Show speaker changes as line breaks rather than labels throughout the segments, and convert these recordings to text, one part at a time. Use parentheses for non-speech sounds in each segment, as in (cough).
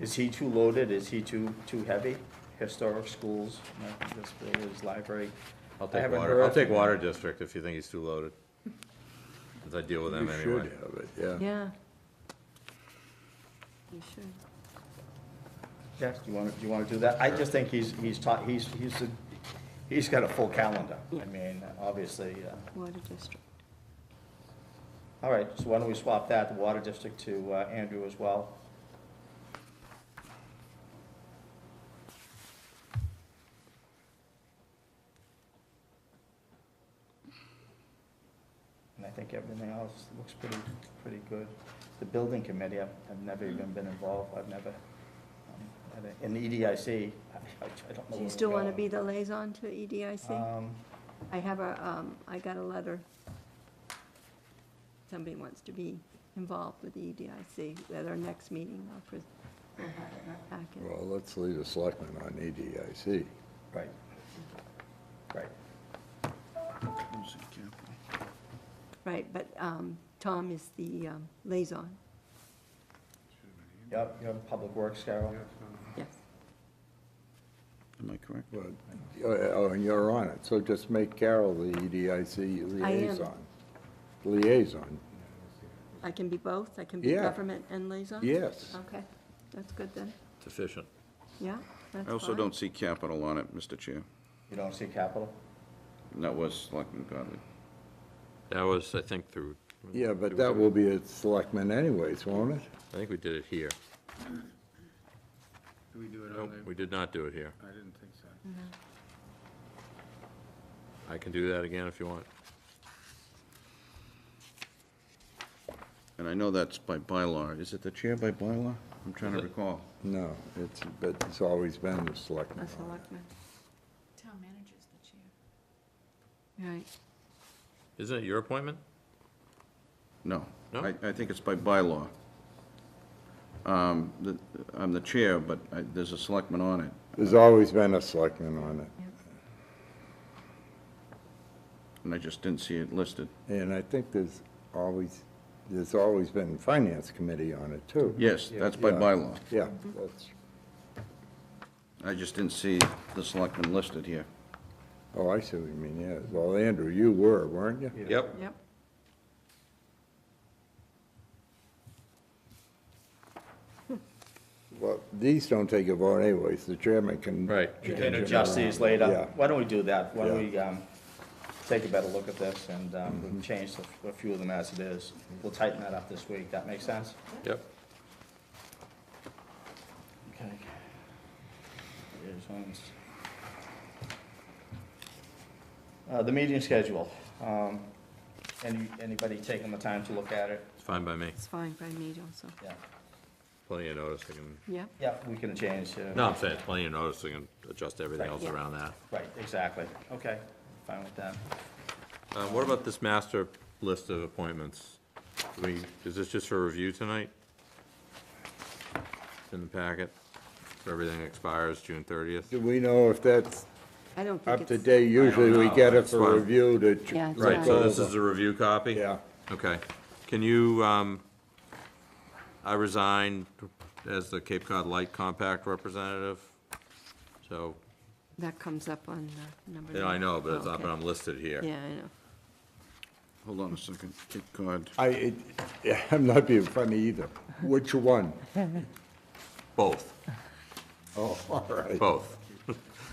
Is he too loaded? Is he too, too heavy? Historic schools, American disabilities, library.
I'll
I
take
haven't
water, I'll
heard-
take water district if you think he's too loaded. 'Cause I deal with them
You should
anyway.
have it, yeah.
Yeah. You should.
Jeff, do you want to, do you want to do that? I just think he's, he's taught, he's, he's, a- he's got a full calendar. I
Yeah.
mean, obviously, uh,
Water district.
all right, so why don't we swap that, the water district to uh, Andrew as well? And I think everything else looks pretty, pretty good. The building committee, I've, I've never even been involved, I've never, um, had a- and the EDIC, I, I I don't know where
Do you
we're
still want to
going.
be the E liaison to EDIC?
Um,
I have a, um, I got a letter. Somebody wants to be involved with E the EDIC at our next meeting. I'll pres- we'll have it in our packet.
Well, let's leave the selectmen on E EDIC.
right, right.
Right, but um, Tom is the um, liaison.
Yep, you have Public Works, Carol.
Yes.
Am I correct?
But, oh, oh, and you're on it, so just make Carol the E EDIC
I am.
liaison. Liaison,
I can be both? I can be
Yeah.
government and liaison?
yes.
Okay, that's good then.
It's efficient.
Yeah, that's
I also
fine.
don't see capital on it, Mr. Chair.
You don't see capital?
And That was Selectman Godley.
That was, I think, through.
Yeah, but that will be a selectman anyways, won't it?
I think we did it here.
Do we do it on
Nope,
the,
we did not do it here. Mm-hmm.
I didn't think so.
I can do that again if you want.
And I know that's by bylaw. Is it the chair by bylaw? I'm trying to recall.
No, it's, but it's always been the selectmen.
A
on it.
selectman,
Town manager's the chair.
right.
Isn't it your appointment?
No.
No?
I, I think it's by bylaw. Um, the- I'm the chair, but I- there's a selectman on it.
There's always been a selectman on it,
And I just didn't see it listed.
and I think there's always, there's always been finance committee on it too.
Yes, that's by
Yeah.
bylaw.
Yeah, that's,
I just didn't see the selectman listed here.
oh, I see what you mean, yeah. Well, Andrew, you were, weren't you?
Yep.
Yep.
Well, these don't take a vote anyways, the chairman can.
Right.
You can adjust these later.
Yeah.
Why don't we do that? Why don't
Yeah. Mm-hmm.
we um, take a better look at this and um, we'll change a- a few of them as it is? We'll tighten that up this week. That makes sense?
Yep.
Okay. Liaisons. Uh, The meeting schedule. Um, Any Anybody taking the time to look at it?
It's fine by me.
It's fine by me also.
Yeah.
Plenty of notice. I can,
Yep.
Yeah, we can change. uh,
no, I'm saying it's plenty of notice. I can adjust everything
Right.
else
Yeah.
around that.
Right, exactly. Okay, fine with that.
Uh, what about this master list of appointments? Do we, is this just for review tonight? It's In the packet? So Everything expires June thirtieth?
Do we know if that's
I don't think
up
it's.
to date? Usually we
know.
get it
That's why-
for review to. ch-
Yeah, it's
look
Right, so this
over.
is a review copy?
Yeah,
Okay. Can you, um, I resigned as the Cape Cod Light Compact representative, so,
That comes up on uh, number.
yeah, I
nine.
know, but it's
Oh,
not, but
okay.
I'm listed here.
Yeah, I know.
Hold on a second. Good God.
I, it, yeah, (laughs) I'm not being funny either. Which one?
Both,
Oh, (laughs) all right.
both.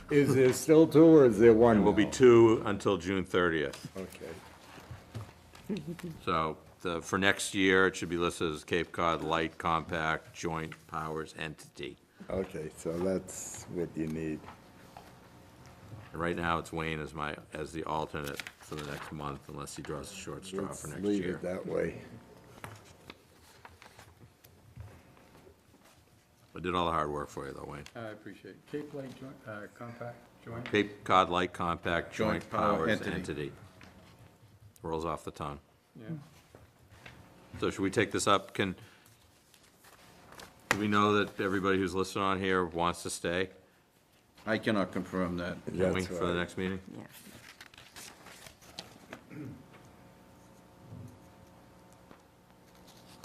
Is there still two or is there one
It will be
now?
two until June thirtieth.
Okay.
So the, for next year, it should be listed as Cape Cod Light Compact Joint Powers Entity.
Okay, so that's what you need.
And right now, it's Wayne as my, as the alternate for the next month, unless he draws a short straw
Let's
for next
leave
year.
it that way.
I did all the hard work for you though, Wayne.
I appreciate it. Cape Light Joint, uh, Compact Joint,
Cape Cod Light Compact Joint
Joint Power
Powers
Entity.
Entity. Rolls off the tongue.
yeah.
So should we take this up? Can, do we know that everybody who's listed on here wants to stay?
I cannot confirm that.
Can we
That's
for the
right.
next meeting?
Yeah.